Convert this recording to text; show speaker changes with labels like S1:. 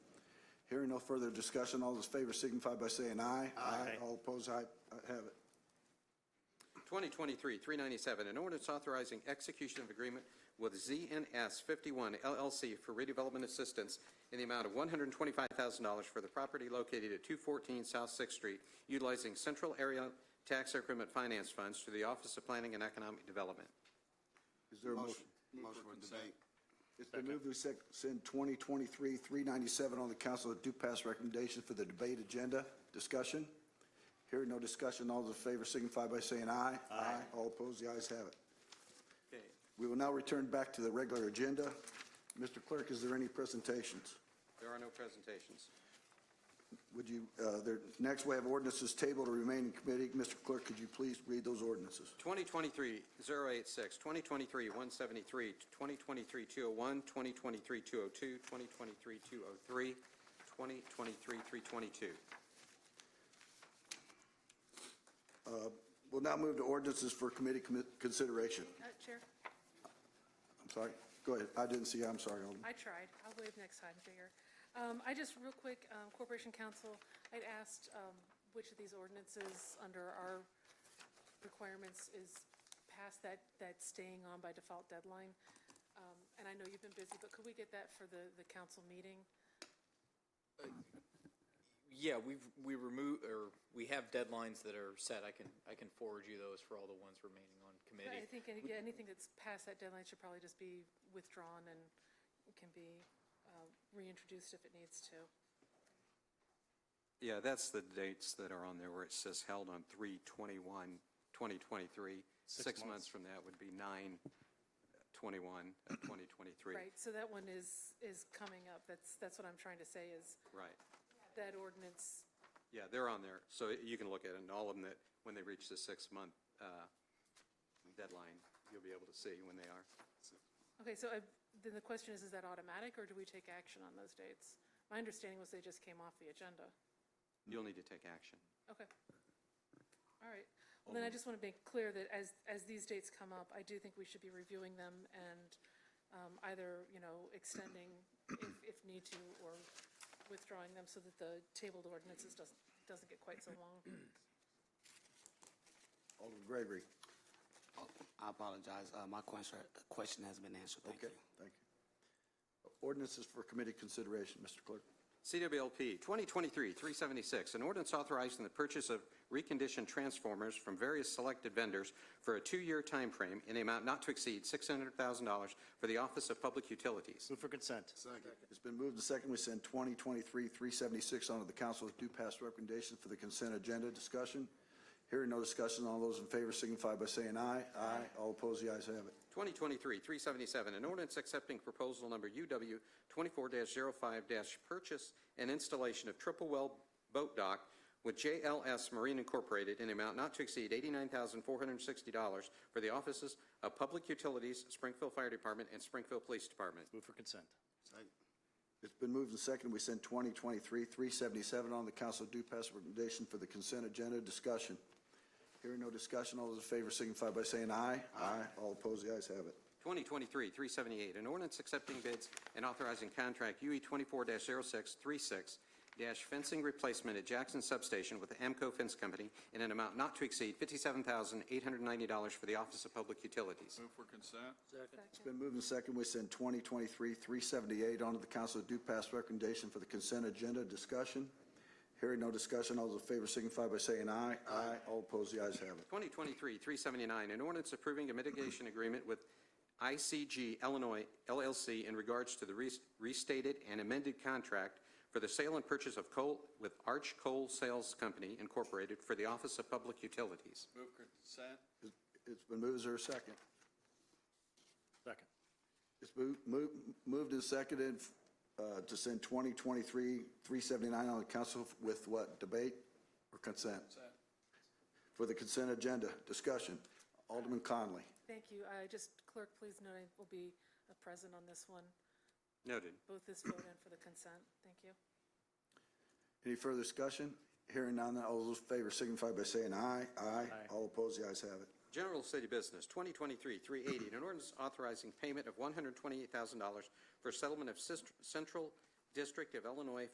S1: Hearing no further discussion, all those in favor signify by saying aye. Aye. All opposed, aye, I have it.
S2: 2023-397, an ordinance authorizing execution of agreement with ZNS 51 LLC for redevelopment assistance in the amount of $125,000 for the property located at 214 South Sixth Street, utilizing Central Area Tax Increment Finance Funds through the Office of Planning and Economic Development.
S1: Is there a motion?
S3: Motion for debate.
S1: It's been moved to sec- send 2023-397 on the council to pass recommendation for the debate agenda. Discussion? Hearing no discussion, all those in favor signify by saying aye. Aye. All opposed, the ayes have it.
S2: Okay.
S1: We will now return back to the regular agenda. Mr. Clerk, is there any presentations?
S2: There are no presentations.
S1: Would you, uh, there, next we have ordinances tabled to remain in committee. Mr. Clerk, could you please read those ordinances?
S2: 2023-086, 2023-173, 2023-201, 2023-202, 2023-203, 2023-322.
S1: We'll now move to ordinances for committee commi- consideration.
S4: Uh, Chair,
S1: I'm sorry. Go ahead. I didn't see, I'm sorry, Alderman.
S4: I tried. I'll waive next time, Jigger. Um, I just, real quick, um, Corporation Council, I'd asked um, which of these ordinances under our requirements is past that, that staying on by default deadline. Um, And I know you've been busy, but could we get that for the, the council meeting?
S5: Yeah, we've, we remove, or we have deadlines that are set. I can, I can forward you those for all the ones remaining on
S4: I
S5: committee.
S4: think any- yeah, anything that's past that deadline should probably just be withdrawn and can be uh, reintroduced if it needs to.
S2: Yeah, that's the dates that are on there where it says held on 3/21/2023. Six months from that would be 9/21/2023.
S4: Right, so that one is, is coming up. That's, that's what I'm trying to say is
S2: Right.
S4: that ordinance,
S2: Yeah, they're on there. So you can look at it, and all of them that, when they reach the six-month uh, deadline, you'll be able to see when they are.
S4: okay, so I- then the question is, is that automatic or do we take action on those dates? My understanding was they just came off the agenda.
S2: You'll need to take action.
S4: Okay. All right. Well, then I just want to make clear that as, as these dates come up, I do think we should be reviewing them and um, either, you know, extending if, if need to or withdrawing them so that the tabled ordinances doesn't, doesn't get quite so long.
S1: Alderman Gregory.
S3: Oh, I apologize, uh, my question, question has been answered, thank you.
S1: Okay, thank you. Ordinances for committee consideration, Mr. Clerk.
S2: CWLP 2023-376, an ordinance authorizing the purchase of reconditioned transformers from various selected vendors for a two-year time frame in an amount not to exceed $600,000 for the Office of Public Utilities.
S6: Move for consent.
S1: It's been moved and second. We send 2023-376 on to the council with due pass recommendation for the consent agenda discussion. Hearing no discussion, all those in favor signify by saying aye. Aye. All opposed, the ayes have it.
S2: 2023-377, an ordinance accepting proposal number UW 24-05-purchase and installation of triple well boat dock with JLS Marine Incorporated in amount not to exceed $89,460 for the offices of Public Utilities, Springfield Fire Department, and Springfield Police Department.
S6: Move for consent.
S1: It's been moved and second. We send 2023-377 on the council with due pass recommendation for the consent agenda discussion. Hearing no discussion, all those in favor signify by saying aye. Aye. All opposed, the ayes have it.
S2: 2023-378, an ordinance accepting bids and authorizing contract E UE 24-0636 fencing replacement at Jackson Substation with the Amco Fence Company in an amount not to exceed $57,890 for the Office of Public Utilities.
S7: Move for consent.
S1: It's been moved and second. We send 2023-378 on to the council with due pass recommendation for the consent agenda discussion. Hearing no discussion, all those in favor signify by saying aye. Aye. All opposed, the ayes have it.
S2: 2023-379, an ordinance approving a mitigation agreement with ICG Illinois LLC in regards to the res- restated and amended contract for the sale and purchase of coal with Arch Coal Sales Company Incorporated for the Office of Public Utilities.
S7: Move for consent.
S1: It's- It's been moved. Is there a second?
S6: Second.
S1: It's moved- moved moved and seconded uh, to send 2023-379 on the council with what? Debate or consent?
S7: Consent.
S1: For the consent agenda discussion. Alderman Conley.
S4: Thank you. I Just clerk, please note I will be uh, present on this one,
S2: Noted.
S4: both this vote and for the consent. Thank you.
S1: Any further discussion? Hearing none, all those in favor signify by saying aye. Aye. All opposed, the ayes have it.
S2: General City Business, 2023-380, an ordinance authorizing payment of $128,000 for settlement of Cist- Central District of Illinois